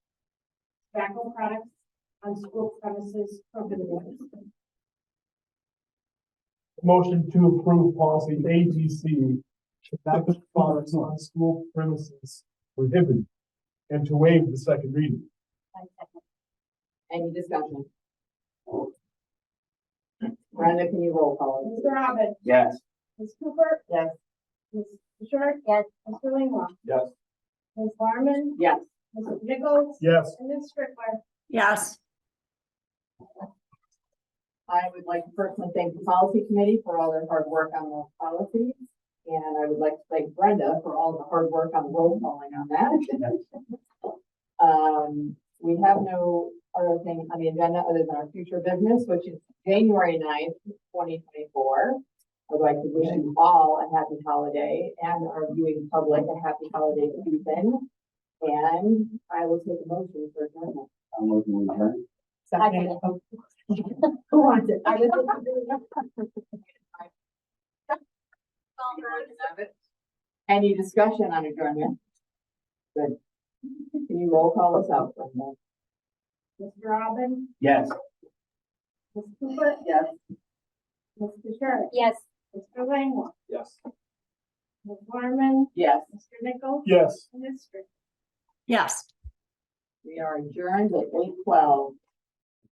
tobacco products on school premises prohibited. Motion to approve policy A G C, tobacco products on school premises prohibited, and to waive the second reading. Any discussion? Brenda, can you roll call? Mr. Robin? Yes. Ms. Cooper? Yes. Ms. Sherrick? Yes. Mr. Langwell? Yes. Ms. Larmen? Yes. Mrs. Nichols? Yes. And Ms. Strickler? yes, I would like to personally thank the policy committee for all their hard work on those policies. And I would like to thank Brenda for all the hard work on roll calling on that. Um, we have no other thing on the agenda other than our future business, which is January 9th, twenty twenty-four. I'd like to wish you all a happy holiday and our viewing public a happy holiday season. And I will take a motion for adjournment. I'm looking at her. Second. Who wants it? I just- Any discussion on adjournment? Good. Can you roll call us out? Brenda? Mr. Robin? Yes. Ms. Cooper? Yes. Mr. Sherrick? Yes. Mr. Langwell? Yes. Ms. Larmen? Yes, Mr. Nichols? Yes. And Ms. Strickler? yes. we are adjourned at eight twelve.